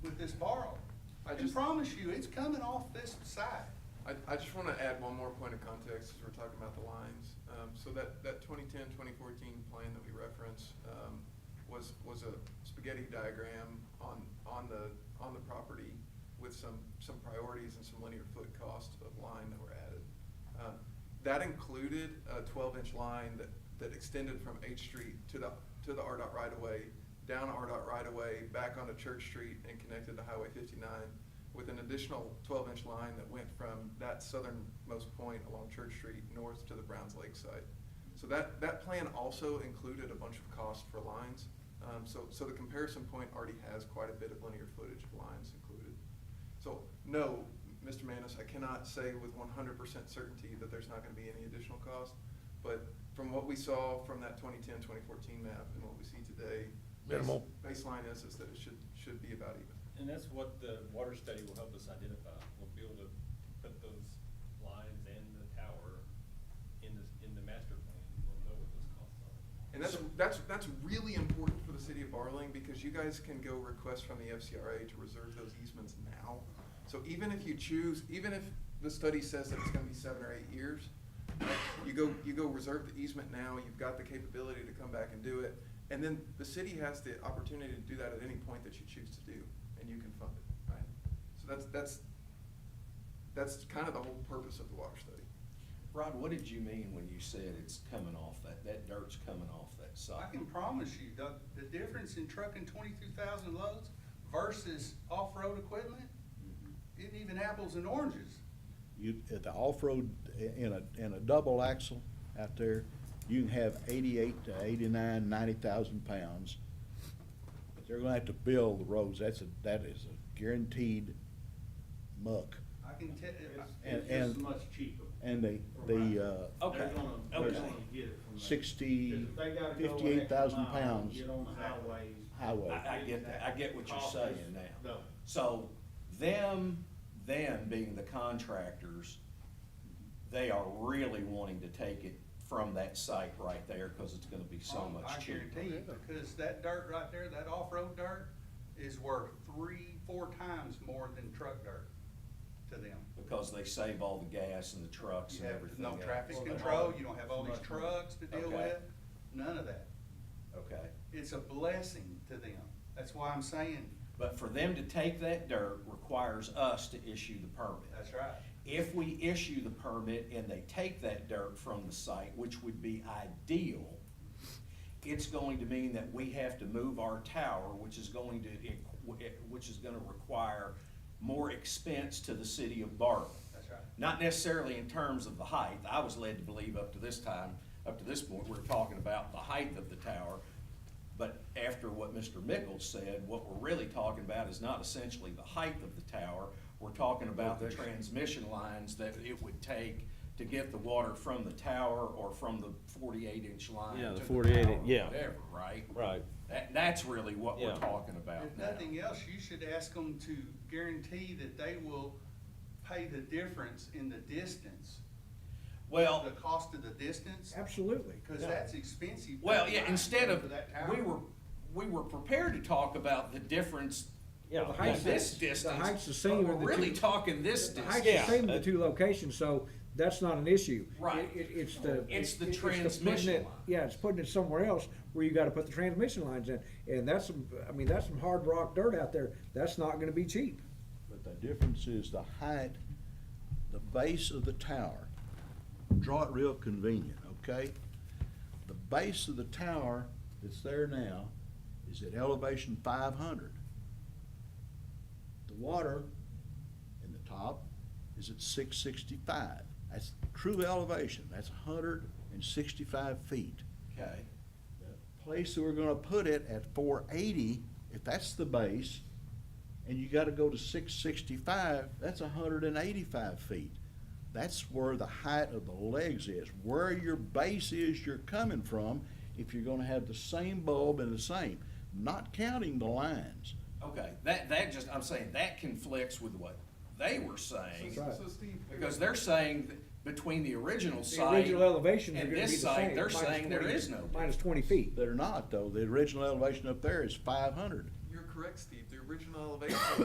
with this borrow. I I just- promise you, it's coming off this side. I, I just want to add one more point of context as we're talking about the lines. Um, so that, that 2010, 2014 plan that we referenced um, was, was a spaghetti diagram on, on the, on the property with some, some priorities and some linear foot cost of line that were added. Um, That included a 12-inch line that, that extended from H Street to the, to the RDOT right-of-way, down RDOT right-of-way, back onto Church Street and connected to Highway 59 with an additional 12-inch line that went from that southernmost point along Church Street north to the Browns Lake site. So that, that plan also included a bunch of cost for lines. Um, So, so the comparison point already has quite a bit of linear footage of lines included. So, no, Mr. Manis, I cannot say with 100% certainty that there's not going to be any additional cost, but from what we saw from that 2010, 2014 map and what we see today, base- Minimal. baseline is, is that it should, should be about even. And that's what the water study will help us identify. We'll be able to put those lines and the tower in the, in the master plan. We'll know what those costs are. And that's, that's, that's really important for the city of Barling, because you guys can go request from the FCRA to reserve those easements now. So even if you choose, even if the study says that it's gonna be seven or eight years, you go, you go reserve the easement now, you've got the capability to come back and do it. And then the city has the opportunity to do that at any point that you choose to do, and you can fund it, right? So that's, that's, that's kind of the whole purpose of the water study. Rod, what did you mean when you said it's coming off that, that dirt's coming off that I side? can promise you, the, the difference in trucking twenty-two thousand loads versus off-road equipment, Mm-hmm. isn't even apples and oranges. You, at the off-road, eh, in a, in a double axle out there, you can have eighty-eight to eighty-nine, ninety thousand pounds. But they're gonna have to build the roads, that's a, that is a guaranteed muck. I can uh, tell, And- It's and- just much cheaper. And the, the, uh, Okay, They're gonna, they're okay. gonna get it from there. 60, Because if they gotta go an extra 58,000 mile and pounds. Get on the highways. highway. I, I get that, I get what you're Cost is saying now. double. So them, them being the contractors, they are really wanting to take it from that site right there because it's gonna be so much Oh, I cheaper. guarantee you, because that dirt right there, that off-road dirt is worth three, four times more than truck dirt to them. Because they save all the gas and the trucks You and have everything no else. traffic Well, they- control, you don't have all these Much more. trucks to deal Okay. with, none of that. Okay, It's a blessing to them. That's why I'm saying, but for them to take that dirt requires us to issue the permit. that's right. If we issue the permit and they take that dirt from the site, which would be ideal, it's going to mean that we have to move our tower, which is going to, which is gonna require more expense to the city of Barton. That's right. Not necessarily in terms of the height. I was led to believe up to this time, up to this point, we're talking about the height of the tower. But after what Mr. Mickles said, what we're really talking about is not essentially the height of the tower. We're talking about the transmission lines that it would take to get the water from the tower or from the forty-eight inch line Yeah, the to the 48 tower or yeah. Whatever, right? Right. That, that's really what we're Yeah. talking about If now. nothing else, you should ask them to guarantee that they will pay the difference in the distance, Well. the cost of the distance, Absolutely. because that's expensive. Well, yeah, instead For of, that tower. we were, we were prepared to talk about the difference, Yeah, the of height's this the- the distance. height's the same but of the We're really two- talking this The height's distance. the same in the two locations, so that's not an issue. Right. It, it- it's the. It's the it- putting transmission it- line. Yeah, it's putting it somewhere else where you gotta put the transmission lines in, and that's some, I mean, that's some hard rock dirt out there, that's not gonna be cheap. But the difference is the height, the base of the tower. Draw it real convenient, okay? The base of the tower that's there now is at elevation five hundred. The water in the top is at six sixty-five. That's true elevation, that's hundred and sixty-five feet. Okay, the place that we're gonna put it at four eighty, if that's the base, and you gotta go to six sixty-five, that's hundred and eighty-five feet. That's where the height of the legs is, where your base is you're coming from, if you're gonna have the same bulb and the same, not counting the lines. okay, that, that just, I'm saying, that conflicts with what they were saying. That's right. So Steve. Because they're saying that between the original site. Original elevations are and gonna be the this same. site, They're minus saying there 20 is no. Minus twenty feet. They're not, though, the original elevation up there is five hundred. You're correct, Steve, the original elevation